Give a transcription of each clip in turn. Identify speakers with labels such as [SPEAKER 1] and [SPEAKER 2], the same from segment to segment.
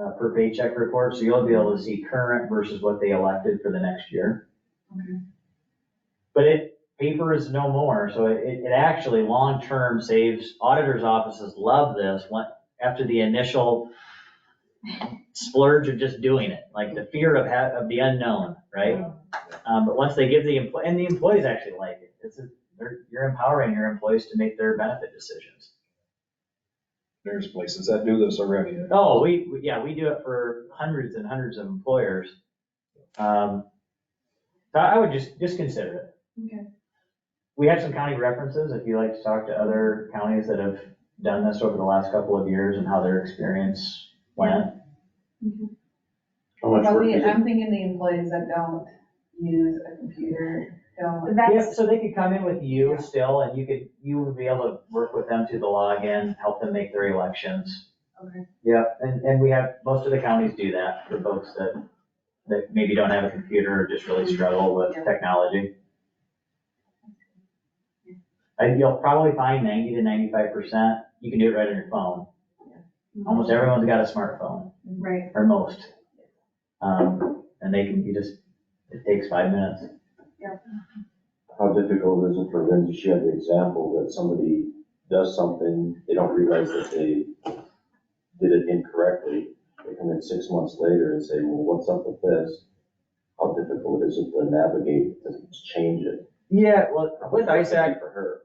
[SPEAKER 1] uh, per paycheck report, so you'll be able to see current versus what they elected for the next year.
[SPEAKER 2] Okay.
[SPEAKER 1] But it, paper is no more, so it, it actually long-term saves, auditors' offices love this, when, after the initial splurge of just doing it, like the fear of ha, of the unknown, right? Um, but once they give the employee, and the employees actually like it, it's, a- they're, you're empowering your employees to make their benefit decisions.
[SPEAKER 3] There's places that do this already.
[SPEAKER 1] Oh, we, we- yeah, we do it for hundreds and hundreds of employers. Um, So I would just, just consider it.
[SPEAKER 2] Okay.
[SPEAKER 1] We have some county references, if you like to talk to other counties that have done this over the last couple of years and how their experience went.
[SPEAKER 4] How much work
[SPEAKER 2] Probably,
[SPEAKER 4] is it?
[SPEAKER 2] I'm thinking the employees that don't use a computer, don't.
[SPEAKER 1] Yeah,
[SPEAKER 5] That's,
[SPEAKER 1] so they could come in with you still, and you could, you would be able to work with them through the login, help them make their elections.
[SPEAKER 2] Okay.
[SPEAKER 1] Yeah, and, and we have, most of the counties do that for folks that, that maybe don't have a computer or just really struggle with
[SPEAKER 2] Yeah.
[SPEAKER 1] technology. And you'll probably find ninety to ninety-five percent, you can do it right on your phone. Almost everyone's got a smartphone,
[SPEAKER 2] Right.
[SPEAKER 1] or most. Um, and they can, you just, it takes five minutes.
[SPEAKER 4] How difficult is it for them to share the example that somebody does something, they don't realize that they did it incorrectly, they come in six months later and say, well, what's up with this? How difficult is it to navigate, to change it?
[SPEAKER 1] Yeah, well,
[SPEAKER 4] How
[SPEAKER 1] with
[SPEAKER 4] much work is it
[SPEAKER 1] ISAC,
[SPEAKER 4] For her.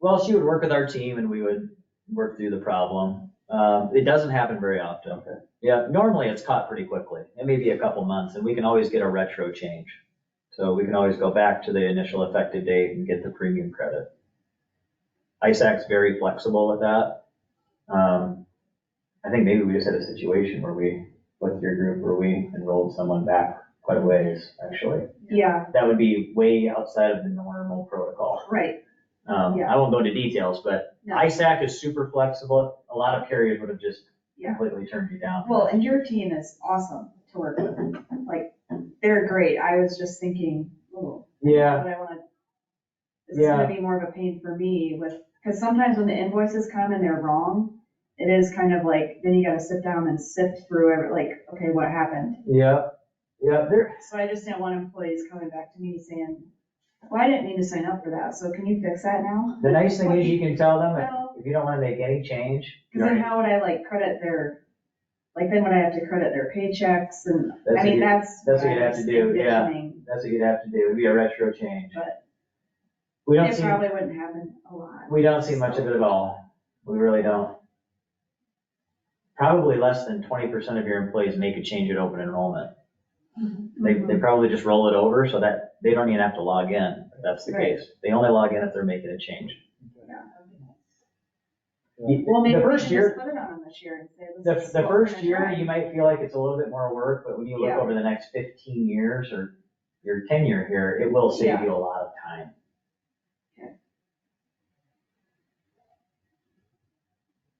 [SPEAKER 1] Well, she would work with our team and we would work through the problem. Um, it doesn't happen very often.
[SPEAKER 4] Okay.
[SPEAKER 1] Yeah, normally it's caught pretty quickly. It may be a couple months and we can always get a retro change. So we can always go back to the initial effective date and get the premium credit. ISAC's very flexible with that. Um, I think maybe we just had a situation where we, with your group, where we enrolled someone back quite a ways, actually.
[SPEAKER 5] yeah,
[SPEAKER 1] That would be way outside of the normal protocol.
[SPEAKER 5] right.
[SPEAKER 1] Um, I won't go into details, but
[SPEAKER 5] No.
[SPEAKER 1] ISAC is super flexible. A lot of carriers would have just
[SPEAKER 5] Yeah.
[SPEAKER 1] completely turned you down.
[SPEAKER 5] Well, and your team is awesome to work with. Like, they're great. I was just thinking, oh,
[SPEAKER 1] Yeah,
[SPEAKER 5] what I wanna, this is gonna be more of a pain for me with, because sometimes when the invoices come and they're wrong, it is kind of like, then you gotta sit down and sift through every, like, okay, what happened?
[SPEAKER 1] yeah, yeah, there,
[SPEAKER 5] So I just didn't want employees coming back to me saying, well, I didn't mean to sign up for that, so can you fix that now?
[SPEAKER 1] the nice thing is you can tell them if-
[SPEAKER 5] Well,
[SPEAKER 1] if you don't wanna make any change.
[SPEAKER 5] because then how would I like credit their, like, then would I have to credit their paychecks and
[SPEAKER 1] That's
[SPEAKER 5] I
[SPEAKER 1] what
[SPEAKER 5] mean,
[SPEAKER 1] you-
[SPEAKER 5] that's.
[SPEAKER 1] that's what
[SPEAKER 5] I
[SPEAKER 1] you'd have to
[SPEAKER 5] was
[SPEAKER 1] do, yeah.
[SPEAKER 5] envisioning.
[SPEAKER 1] That's what you'd have to do. It'd be a retro change.
[SPEAKER 5] But-
[SPEAKER 1] We don't
[SPEAKER 5] It
[SPEAKER 1] see,
[SPEAKER 5] probably wouldn't happen a lot.
[SPEAKER 1] we don't see much of it at all. We really don't. Probably less than twenty percent of your employees make a change at open enrollment.
[SPEAKER 2] Mm-hmm.
[SPEAKER 1] They, they probably just roll it over so that they don't even have to log in, if that's the
[SPEAKER 5] Right.
[SPEAKER 1] case. They only log in if they're making a change.
[SPEAKER 5] Well, maybe
[SPEAKER 1] The
[SPEAKER 5] we
[SPEAKER 1] first
[SPEAKER 5] should
[SPEAKER 1] year,
[SPEAKER 5] just put it on them this year and say.
[SPEAKER 1] the,
[SPEAKER 5] this is
[SPEAKER 1] the
[SPEAKER 5] what we're
[SPEAKER 1] first
[SPEAKER 5] gonna
[SPEAKER 1] year,
[SPEAKER 5] try.
[SPEAKER 1] you might feel like it's a little bit more work, but when you look
[SPEAKER 5] Yeah.
[SPEAKER 1] over the next fifteen years or your tenure here, it will save
[SPEAKER 5] Yeah.
[SPEAKER 1] you a lot of time.
[SPEAKER 5] Okay.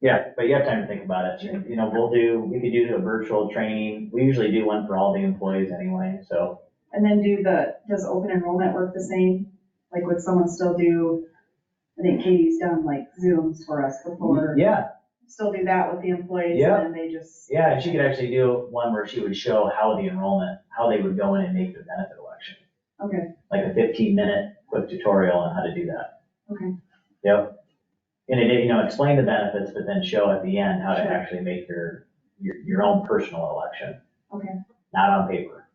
[SPEAKER 1] Yeah, but you have time to think about it. You you know, we'll do, we could do a virtual training. We usually do one for all the employees anyway, so.
[SPEAKER 5] And then do the, does open enrollment work the same? Like, would someone still do, I think Katie's done like Zooms for us before.
[SPEAKER 1] Yeah,
[SPEAKER 5] Still do that with the employees
[SPEAKER 1] Yeah.
[SPEAKER 5] and then they just.
[SPEAKER 1] Yeah, and she could actually do one where she would show how the enrollment, how they would go in and make the benefit election.
[SPEAKER 5] Okay.
[SPEAKER 1] Like a fifteen minute quick tutorial on how to do that.
[SPEAKER 5] Okay.
[SPEAKER 1] Yep. And it, you know, explain the benefits, but then show at the end how to
[SPEAKER 5] Sure.
[SPEAKER 1] actually make your, your, your own personal election.
[SPEAKER 5] Okay.
[SPEAKER 1] Not on paper.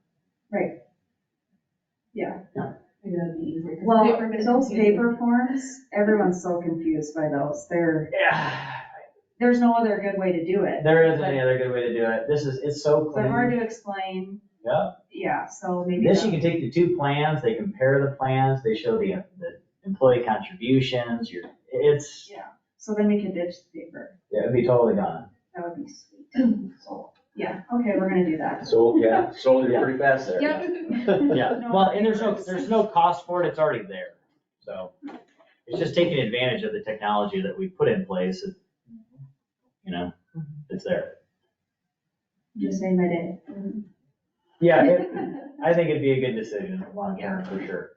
[SPEAKER 2] Maybe that'd be easier. 'cause
[SPEAKER 5] Well,
[SPEAKER 2] paper is
[SPEAKER 5] those
[SPEAKER 2] confusing.
[SPEAKER 5] paper forms, everyone's so confused by those. There,
[SPEAKER 1] Yeah.
[SPEAKER 5] there's no other good way to do it.
[SPEAKER 1] There isn't any other good way to do it. This is, it's so
[SPEAKER 5] They're hard
[SPEAKER 1] clean.
[SPEAKER 5] to explain.
[SPEAKER 1] Yeah.
[SPEAKER 5] Yeah, so maybe.
[SPEAKER 1] This,
[SPEAKER 5] the-
[SPEAKER 1] you can take the two plans, they compare the plans, they show the, the employee contributions, your, it's,
[SPEAKER 5] So then we can ditch the paper.
[SPEAKER 1] yeah, it'd be totally gone.
[SPEAKER 5] That would be sweet. So, yeah, okay, we're gonna do that.
[SPEAKER 4] So, yeah, sold
[SPEAKER 1] Yeah.
[SPEAKER 4] it pretty fast there.
[SPEAKER 1] Yeah,
[SPEAKER 5] No,
[SPEAKER 1] well, and there's no,
[SPEAKER 5] it's-
[SPEAKER 1] there's no cost for it, it's already there, so. It's just taking advantage of the technology that we put in place, it- you know, it's there.
[SPEAKER 5] Just made my day.
[SPEAKER 1] Yeah, it- I think it'd be a good decision, long term, for sure.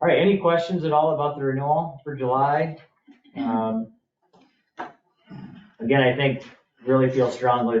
[SPEAKER 1] All right, any questions at all about the renewal for July? Um, Again, I think really feel strongly